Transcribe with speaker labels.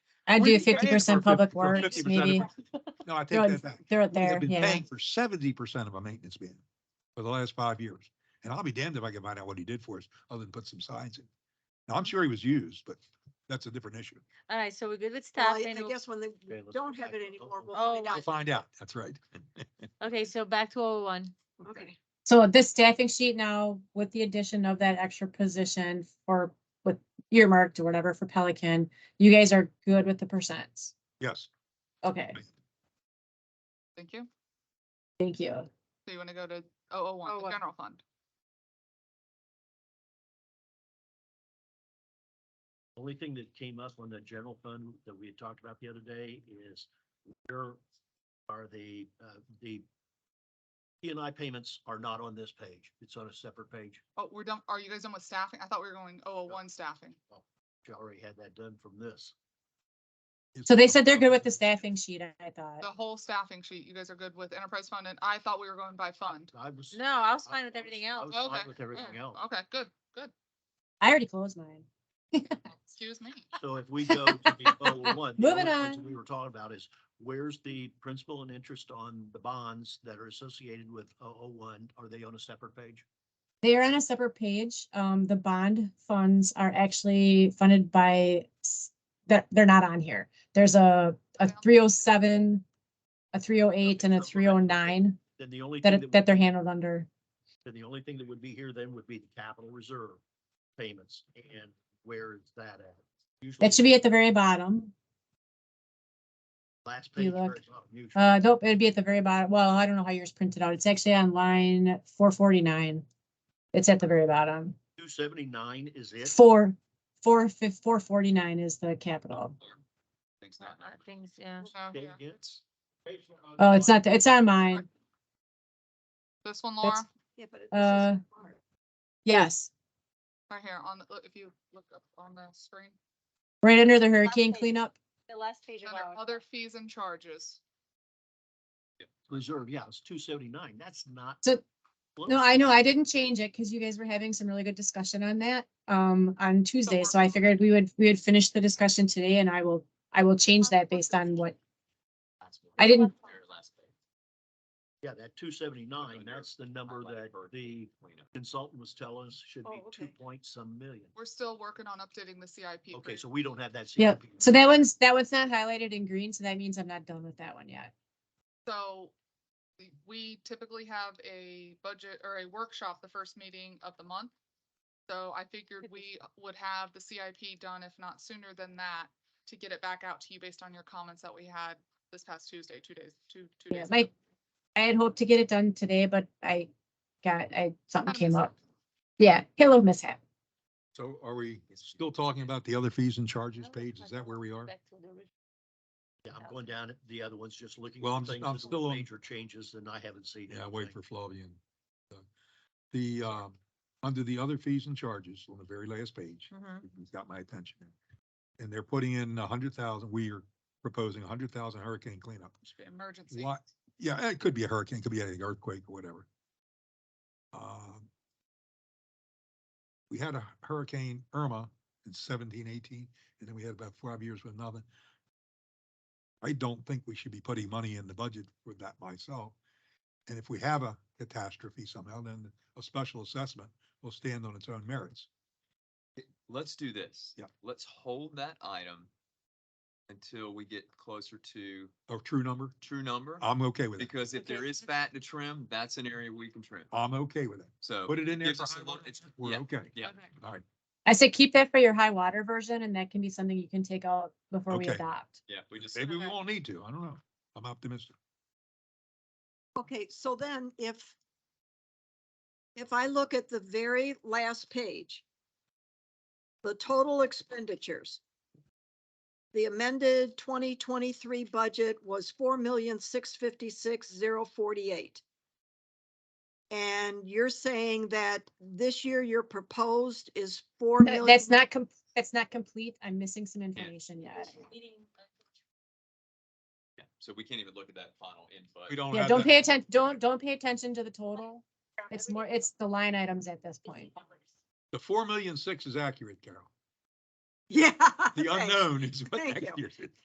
Speaker 1: I
Speaker 2: We're
Speaker 1: do
Speaker 2: paying
Speaker 1: fifty percent
Speaker 2: for
Speaker 1: public
Speaker 2: 50%
Speaker 1: works,
Speaker 2: of
Speaker 1: maybe.
Speaker 2: it. No, I
Speaker 1: They're-
Speaker 2: take that back.
Speaker 1: They're up
Speaker 2: We have
Speaker 1: there,
Speaker 2: been
Speaker 1: yeah.
Speaker 2: Paying for seventy percent of our maintenance bid for the last five years. And I'll be damned if I can find out what he did for us, other than put some signs in. Now, I'm sure he was used, but that's a different issue.
Speaker 3: All right, so we're good with
Speaker 4: Well,
Speaker 3: staff
Speaker 4: I
Speaker 3: and,
Speaker 4: I
Speaker 3: we'll-
Speaker 4: guess when they
Speaker 5: Okay, let's
Speaker 4: don't
Speaker 5: go
Speaker 4: have
Speaker 5: back.
Speaker 4: it anymore, we'll
Speaker 3: Oh,
Speaker 4: find
Speaker 2: We'll
Speaker 4: out.
Speaker 2: find out. That's right.
Speaker 3: okay, so back to oh one.
Speaker 4: Okay.
Speaker 1: So this staffing sheet now with the addition of that extra position for, with earmarked or whatever for Pelican, you guys are good with the percents.
Speaker 2: Yes.
Speaker 1: Okay,
Speaker 6: Thank you.
Speaker 1: thank you.
Speaker 6: So you want to go to 001, the
Speaker 4: 01.
Speaker 6: general fund?
Speaker 5: Only thing that came up on the general fund that we had talked about the other day is where are the, uh, the P and I payments are not on this page. It's on a separate page.
Speaker 6: Oh, we're done. Are you guys done with staffing? I thought we were going 001 staffing.
Speaker 5: She already had that done from this.
Speaker 1: So they said they're good with the staffing sheet, I- I
Speaker 6: The
Speaker 1: thought.
Speaker 6: whole staffing sheet, you guys are good with enterprise fund and I thought we were going by fund.
Speaker 5: I was.
Speaker 3: No, I was
Speaker 5: I-
Speaker 3: fine with
Speaker 5: I
Speaker 3: everything
Speaker 5: I
Speaker 3: else. Mm,
Speaker 5: was fine
Speaker 6: Okay,
Speaker 5: With everything
Speaker 6: yeah,
Speaker 5: else.
Speaker 6: Okay, good, good.
Speaker 1: I already closed mine.
Speaker 6: Excuse me.
Speaker 5: So if we go to the oh one.
Speaker 1: Moving on.
Speaker 5: We were talking about is where's the principal and interest on the bonds that are associated with oh oh one? Are they on a separate page?
Speaker 1: They are on a separate page. Um, the bond funds are actually funded by, s- that, they're not on here. There's a, a three oh seven, a three oh eight and a three oh nine
Speaker 5: Then the only. thing
Speaker 1: that,
Speaker 5: would
Speaker 1: that they're
Speaker 5: be-
Speaker 1: handled under.
Speaker 5: Then the only thing that would be here then would be the capital reserve payments. And where is that at? Usually
Speaker 1: That should be at the very bottom.
Speaker 5: Last
Speaker 1: if you
Speaker 5: page. where
Speaker 1: look,
Speaker 5: it's not usually.
Speaker 1: Uh, nope, it'd be at the very bottom. Well, I don't know how yours printed out. It's actually on line four forty-nine. It's at the very bottom.
Speaker 5: Two seventy-nine is it?
Speaker 1: Four, four, four forty-nine is the capital.
Speaker 6: Thanks,
Speaker 2: Oh,
Speaker 3: Uh,
Speaker 6: Matt.
Speaker 3: uh, Things, yeah.
Speaker 6: No,
Speaker 5: Okay,
Speaker 6: yeah.
Speaker 5: yeah.
Speaker 1: Oh, it's not, it's on mine.
Speaker 6: This one, Laura,
Speaker 1: That's-
Speaker 4: Yeah, but it-
Speaker 1: Uh,
Speaker 4: this is hard.
Speaker 1: Yes,
Speaker 6: right here on the, look, if you look up on the screen,
Speaker 1: right under the hurricane
Speaker 3: page.
Speaker 1: cleanup.
Speaker 3: The last page
Speaker 6: under other fees and charges.
Speaker 5: Reserve, yeah, it's two seventy-nine. That's not.
Speaker 1: So-
Speaker 5: close.
Speaker 1: No, I know, I didn't change it because you guys were having some really good discussion on that, um, on Tuesday,
Speaker 6: we're-
Speaker 1: so I figured we would, we would finish the discussion today and I will, I will change that based on what, I didn't,
Speaker 5: Yeah, that two seventy-nine, that's the number that the consultant was telling us should be
Speaker 4: Oh,
Speaker 5: two
Speaker 4: okay.
Speaker 5: point some million.
Speaker 6: We're still working on updating the CIP. for
Speaker 5: Okay,
Speaker 6: you.
Speaker 5: so we don't have that.
Speaker 1: yeah,
Speaker 5: CIP.
Speaker 1: so that one's, that one's not highlighted in green, so that means I'm not done with that one yet.
Speaker 6: So the- we typically have a budget or a workshop the first meeting of the month. So I figured we would have the CIP done, if not sooner than that, to get it back out to you based on your comments that we had this past Tuesday, two days, two, two
Speaker 1: Yeah,
Speaker 6: days.
Speaker 1: my, I had hoped to get it done today, but I got, I, something
Speaker 6: Kinda
Speaker 1: came
Speaker 6: mishap.
Speaker 1: up. Yeah, hello mishap.
Speaker 2: So are we still talking about the other fees and charges page? Is that where we are?
Speaker 5: Yeah, I'm going down, the other one's just looking.
Speaker 2: Well,
Speaker 5: for
Speaker 2: I'm just-
Speaker 5: things
Speaker 2: I'm
Speaker 5: that were
Speaker 2: still on-
Speaker 5: Major changes and I haven't seen.
Speaker 2: Yeah, wait
Speaker 5: anything.
Speaker 2: for Flavian. The, um, under the other fees and charges on the very last page, he's got my attention. And they're putting in a hundred thousand, we are proposing a hundred thousand hurricane cleanup.
Speaker 6: Emergency.
Speaker 2: Why- Yeah, it could be a hurricane, it could be anything, earthquake or whatever. Um, We had a Hurricane Irma in seventeen, eighteen, and then we had about five years with nothing. I don't think we should be putting money in the budget for that myself. And if we have a catastrophe somehow, then a special assessment will stand on its own merits.
Speaker 7: Let's do this.
Speaker 2: Yeah.
Speaker 7: Let's hold that item until we get closer to
Speaker 2: A true number,
Speaker 7: true number.
Speaker 2: I'm okay with it.
Speaker 7: Because if there
Speaker 4: Okay.
Speaker 7: is fat to trim, that's an area we can trim.
Speaker 2: I'm okay with it.
Speaker 7: So.
Speaker 2: Put it in there.
Speaker 7: gives
Speaker 2: for
Speaker 7: us a
Speaker 2: high
Speaker 7: little-
Speaker 2: water.
Speaker 7: it's-
Speaker 2: We're
Speaker 7: yeah,
Speaker 2: okay.
Speaker 7: Yeah.
Speaker 6: Okay.
Speaker 2: All right.
Speaker 1: I said keep that for your high water version and that can be something you can take out before we
Speaker 2: Okay.
Speaker 1: adopt.
Speaker 7: Yeah, we just.
Speaker 2: Maybe we
Speaker 6: Okay.
Speaker 2: won't need to. I don't know. I'm optimistic.
Speaker 4: Okay, so then if, if I look at the very last page, the total expenditures, the amended twenty twenty-three budget was four million, six fifty-six, zero forty-eight. And you're saying that this year your proposed is four
Speaker 1: Th-
Speaker 4: million?
Speaker 1: That's not, com- that's not complete. I'm missing some information yet.
Speaker 7: yeah, So we can't even look at that final input.
Speaker 2: We don't
Speaker 1: Yeah,
Speaker 2: have.
Speaker 1: don't
Speaker 2: that-
Speaker 1: pay attention, don't, don't pay attention to the total. It's more, it's the line items at this point.
Speaker 2: The four million six is accurate, Carol.
Speaker 4: Yeah.
Speaker 2: The
Speaker 4: thanks.
Speaker 2: unknown is what
Speaker 4: Thank
Speaker 2: next
Speaker 4: you.
Speaker 2: year. is.